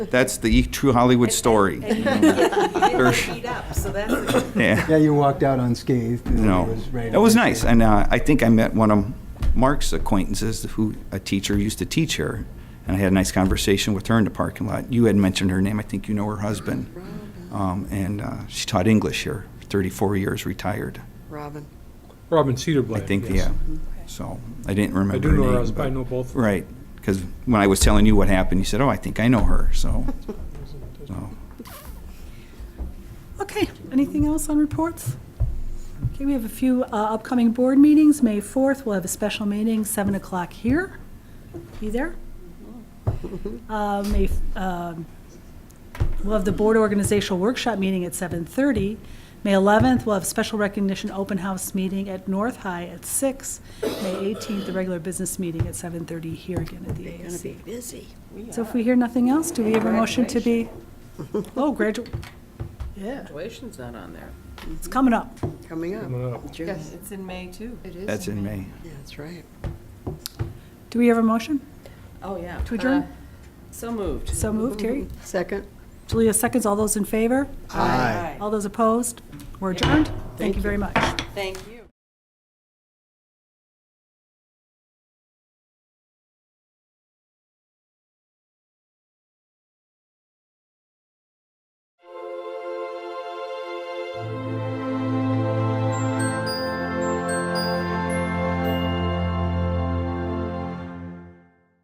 That's the E- true Hollywood story. didn't beat up, so that's a good Yeah, Yeah, you walked out unscathed. and it no. was right That was away. nice. And uh, I think I met one of Mark's acquaintances who, a teacher, used to teach here. And I had a nice conversation with her in the parking lot. You had mentioned her name. I think you know her husband. Um, and uh, she taught English here, 34 years, retired. Robin. Robin Cedarblad. I think, yes. yeah. So I didn't remember I do her know her name, husband, I but- know both of them. Right, because when I was telling you what happened, you said, "Oh, I think I know her." So, so Okay, anything else on reports? Okay, we have a few uh, upcoming board meetings, May 4th, we'll have a special meeting, 7 o'clock here. Be there. Uh, May, um, We'll have the board organizational workshop meeting at 7:30. May 11th, we'll have special recognition open house meeting at North High at 6. May 18th, the regular business meeting at 7:30 here again at the Going to be AAC. busy. So if we hear nothing else, do we have a motion to be? Oh, gradu, yeah, Graduation's not on there. it's coming up. Coming Coming up. up. June. Yes, it's in May, too. that's in May. Yeah, That's right. Do we have a motion? Oh, yeah. To adjourn? Uh, So moved. So moved, Terry. Second. Julia seconds. All those in favor? Aye. All those opposed? We're adjourned. Thank you very much. Thank you.